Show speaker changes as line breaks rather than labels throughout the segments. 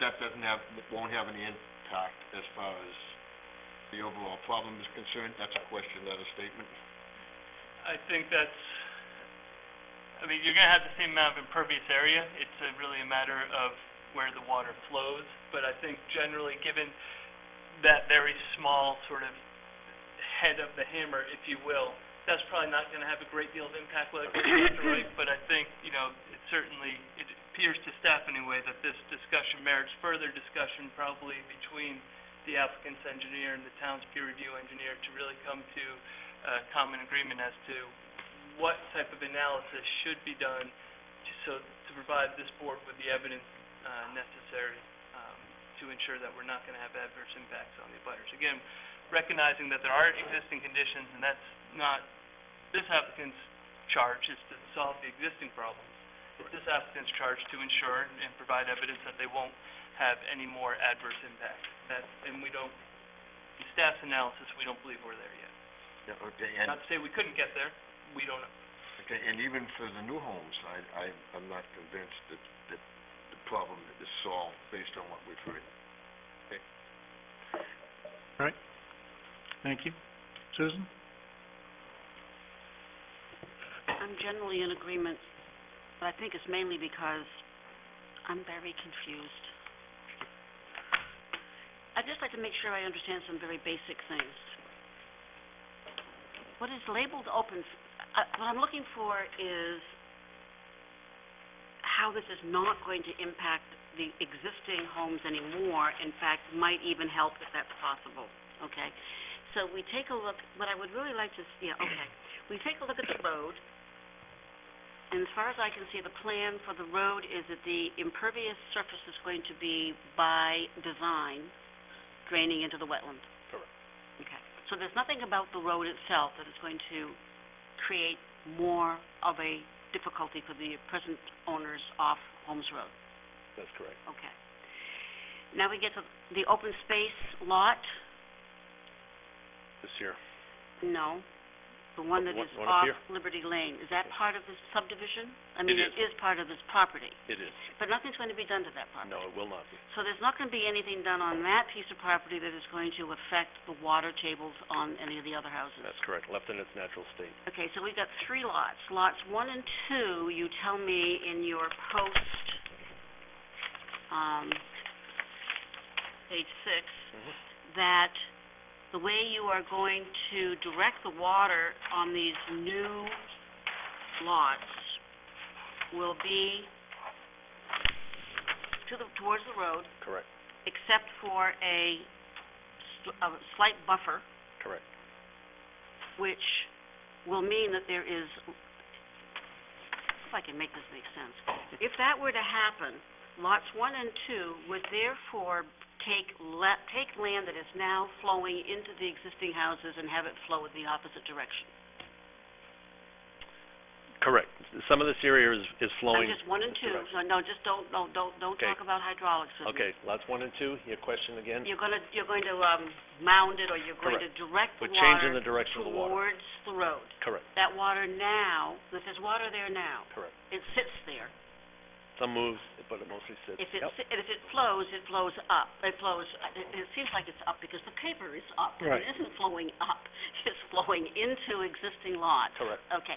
doesn't have, won't have any impact as far as the overall problem is concerned? That's a question, not a statement.
I think that's, I mean, you're gonna have the same amount of impervious area, it's a really a matter of where the water flows, but I think generally, given that very small sort of head of the hammer, if you will, that's probably not gonna have a great deal of impact whether it goes left or right, but I think, you know, it certainly, it appears to staff anyway, that this discussion merits further discussion probably between the applicant's engineer and the town's peer review engineer to really come to uh, common agreement as to what type of analysis should be done to, so, to provide this board with the evidence, uh, necessary, um, to ensure that we're not gonna have adverse impacts on the abutters. Again, recognizing that there are existing conditions, and that's not, this applicant's charge is to solve the existing problems. It's this applicant's charge to ensure and provide evidence that they won't have any more adverse impact. That, and we don't, in staff's analysis, we don't believe we're there yet.
Yeah, okay, and,
Not to say we couldn't get there, we don't know.
okay, and even for the new homes, I, I, I'm not convinced that, that the problem is solved based on what we've heard.
Thank you. Susan?
I'm generally in agreement, but I think it's mainly because I'm very confused. I'd just like to make sure I understand some very basic things. What is labeled open, s- uh, what I'm looking for is how this is not going to impact the existing homes anymore, in fact, might even help if that's possible, okay? So we take a look, what I would really like to, s- yeah, okay we take a look at the road, and as far as I can see, the plan for the road is that the impervious surface is going to be by design draining into the wetland.
Correct.
Okay, so there's nothing about the road itself that is going to create more of a difficulty for the present owners off Holmes Road.
That's correct.
Okay. Now we get to the open space lot,
This year.
no, the one that
One-
is
one up
off
here?
Liberty Lane, is that part of this subdivision? I mean, it is part of this property,
It is.
but nothing's going to be done to that property.
it will not be.
So there's not going to be anything done on that piece of property that is going to affect the water tables on any of the other houses?
correct, left in its natural state.
Okay, so we've got three lots. Lots one and two, you tell me in your post, um, page six, that the way you are going to direct the water on these new lots will be to the, towards the road,
Correct,
except for a sl- a slight buffer
correct.
which will mean that there is, if I can make this make sense, if that were to happen, lots one and two would therefore take la- take land that is now flowing into the existing houses and have it flow in the opposite direction.
Correct. Some of this area is, is
So
flowing.
just one and two,
direction.
so no, just don't, no, don't, don't
Okay.
talk about hydraulics with me.
Okay, lots one and two, your question again?
You're gonna, you're going to, um, mound it, or you're going to direct the
We're changing
water
the direction of the water.
towards the road.
Correct,
That water now, if there's water there now,
correct.
it sits there.
Some moves, but it mostly sits.
If it,
Yep.
si- if it flows, it flows up, it flows, it, it seems like it's up because the paper is up.
Right.
It isn't flowing up, it's flowing into existing lots.
Correct,
Okay,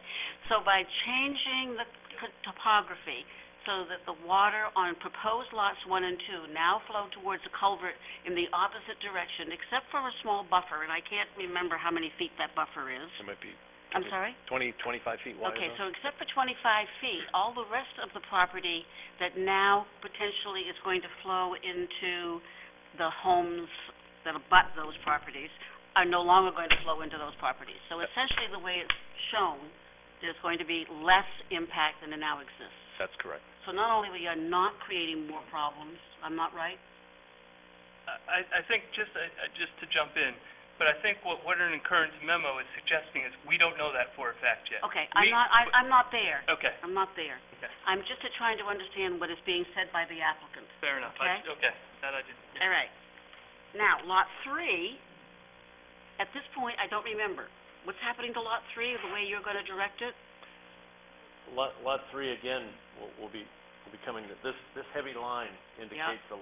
so by changing the c- topography so that the water on proposed lots one and two now flow towards the culvert in the opposite direction, except for a small buffer, and I can't remember how many feet that buffer is.
it might be
I'm
Okay.
sorry?
twenty, twenty-five feet wide.
Okay, so
or-
except for 25 feet, all the rest of the property that now potentially is going to flow into the homes that abut those properties are no longer going to flow into those properties. So essentially, the way it's shown, there's going to be less impact than it now exists.
That's correct.
So not only we are not creating more problems, I'm not right?
I, I think, just, I- I- just to jump in, but I think what, what an incurrence memo is suggesting is, we don't know that for a fact yet.
Okay,
We-
I'm not, I- I'm not there.
Okay,
I'm not there.
Okay.
I'm just trying to understand what is being said by the applicant.
fair enough, I, okay, that I didn't, yeah.
All right. Now, lot three, at this point, I don't remember. What's happening to lot three, the way you're gonna direct it?
Lot, lot three, again, will, will be, will be coming, this, this heavy line indicates the